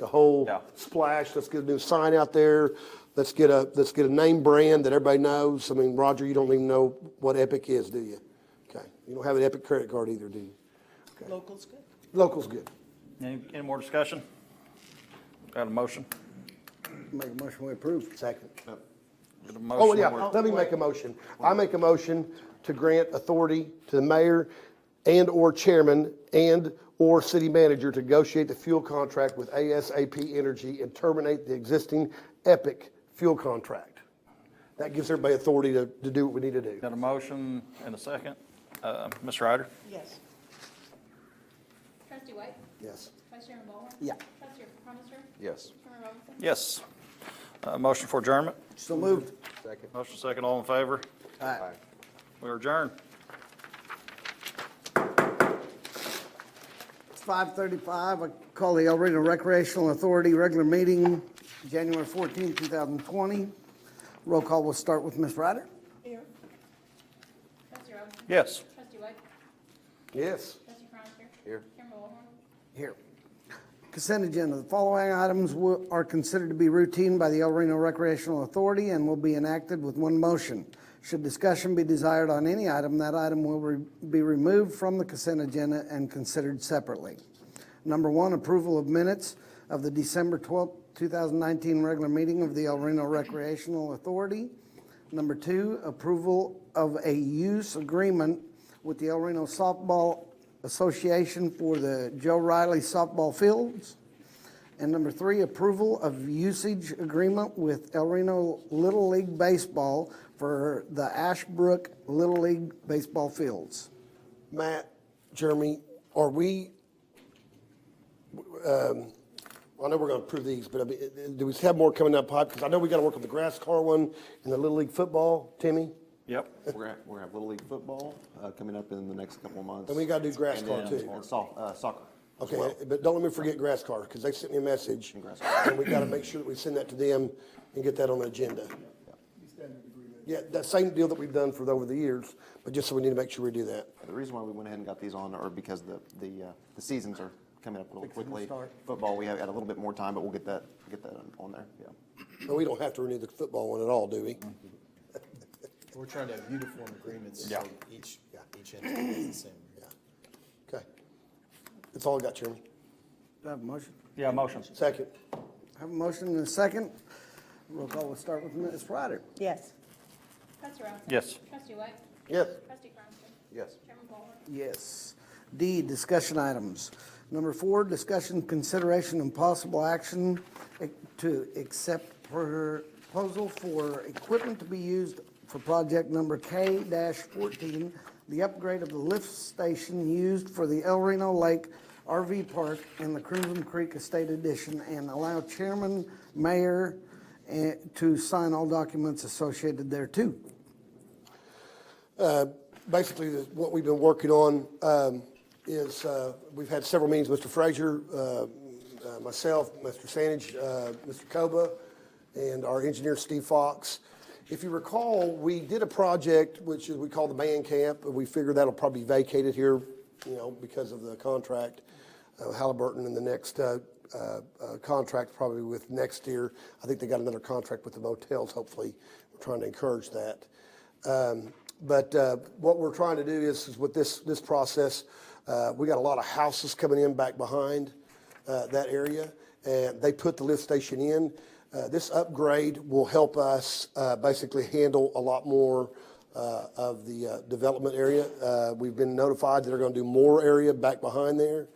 the whole Yeah. splash. Let's get a new sign out there. Let's get a, let's get a name brand that everybody knows. I mean, Roger, you don't even know what Epic is, do you? Okay. You don't have an Epic credit card either, do you? Local's good. Local's good. Any, any more discussion? Got a motion? Make a motion we approve. Second. Got a Oh, motion. yeah, We're- let me make a motion. I make a motion to grant authority to the mayor and/or chairman and/or city manager to negotiate the fuel contract with ASAP Energy and terminate the existing Epic fuel contract. That gives everybody authority to, to do what we need to do. Got a motion and a second. Uh, Ms. Ryder? Yes. Trustee White? Yes. Vice Chairman Ballhorn? Yeah. Trustee Crumister? Yes. Chairman Robinson? Yes. Uh, motion for adjournment? So moved. Motion second, all in favor? Aye. We adjourn. It's five thirty-five. I call the El Reno Recreational Authority regular meeting, January fourteenth, two thousand twenty. Roll call will start with Ms. Ryder. Here. Trustee Robinson? Yes. Trustee White? Yes. Trustee Crumister? Here. Chairman Ballhorn? Here. Consent agenda. The following items will- are considered to be routine by the El Reno Recreational Authority and will be enacted with one motion. Should discussion be desired on any item, that item will re- be removed from the consent agenda and considered separately. Number one, approval of minutes of the December 12, 2019 regular meeting of the El Reno Recreational Authority. Number two, approval of a use agreement with the El Reno Softball Association for the Joe Riley softball fields. And number three, approval of usage agreement with El Reno Little League Baseball for the Ashbrook Little League baseball fields. Matt, Jeremy, are we, um, I know we're going to approve these, but I mean, uh, do we have more coming up, pipe? Because I know we got to work on the grass car one and the Little League football, Timmy. Yep. We're gonna, we're gonna have Little League football, uh, coming up in the next couple of months. And we gotta do grass And court, then- too. And soft, uh, soccer. as well. Okay, but don't let me forget grass car, because they sent me a message. And we gotta make sure that we send that to them and get that on the agenda. Yeah, that same deal that we've done for over the years, but just so we need to make sure we do that. The reason why we went ahead and got these on are because the, the, uh, the seasons are coming up a little Fixing to quickly. start. Football, we have got a little bit more time, but we'll get that, get that on- on there, yeah. But we don't have to renew the football one at all, do we? Mm-hmm. We're trying to have uniform agreements, so each, each entity is the same. Okay. That's all I got, Chairman. Do I have a motion? Yeah, motion. Second. I have a motion and a second. Roll call will start with Ms. Ryder. Yes. Trustee Robinson? Yes. Trustee White? Yes. Trustee Crumister? Yes. Chairman Ballhorn? Yes. D, discussion items. Number four, discussion, consideration, and possible action to accept proposal for equipment to be used for project number K fourteen, the upgrade of the lift station used for the El Reno Lake RV Park and the Crimson Creek Estate Edition, and allow chairman, mayor, eh, to sign all documents associated thereto. basically, the- what we've been working on um, is, uh, we've had several meetings, Mr. Frazier, uh, uh, myself, Mr. Sandage, uh, Mr. Koba, and our engineer, Steve Fox. If you recall, we did a project which is, we call the man camp, and we figure that'll probably be vacated here, you know, because of the contract. uh, Halliburton and the next uh, uh, uh, contract probably with next year. I think they got another contract with the motels, hopefully. We're trying to encourage that. Um, But uh, what we're trying to do is, is with this, this process, uh, we got a lot of houses coming in back behind uh, that area, and they put the lift station in. Uh, This upgrade will help us uh, basically handle a lot more uh, of the uh, development area. Uh, We've been notified that they're going to do more area back behind there.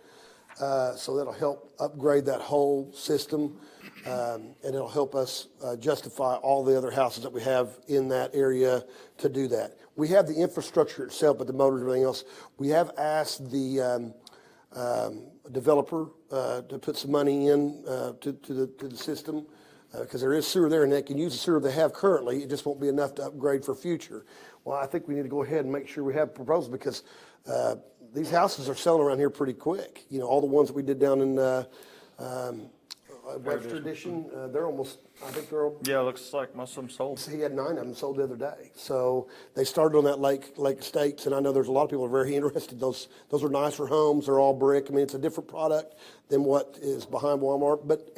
Uh, So that'll help upgrade that whole system, um, and it'll help us uh, justify all the other houses that we have in that area to do that. We have the infrastructure itself, but the motors and everything else. We have asked the um, um, developer uh, to put some money in uh, to to the to the system, because there is sewer there, and they can use the sewer they have currently, it just won't be enough to upgrade for future. Well, I think we need to go ahead and make sure we have proposals, because uh, these houses are selling around here pretty quick. You know, all the ones that we did down in uh, um, Webster Edition, uh, they're almost, I think they're, al- Yeah, looks like most of them sold. he had nine of them sold the other day. So they started on that Lake, Lake Estates, and I know there's a lot of people who are very interested. Those, those are nicer homes, they're all brick. I mean, it's a different product than what is behind Walmart, but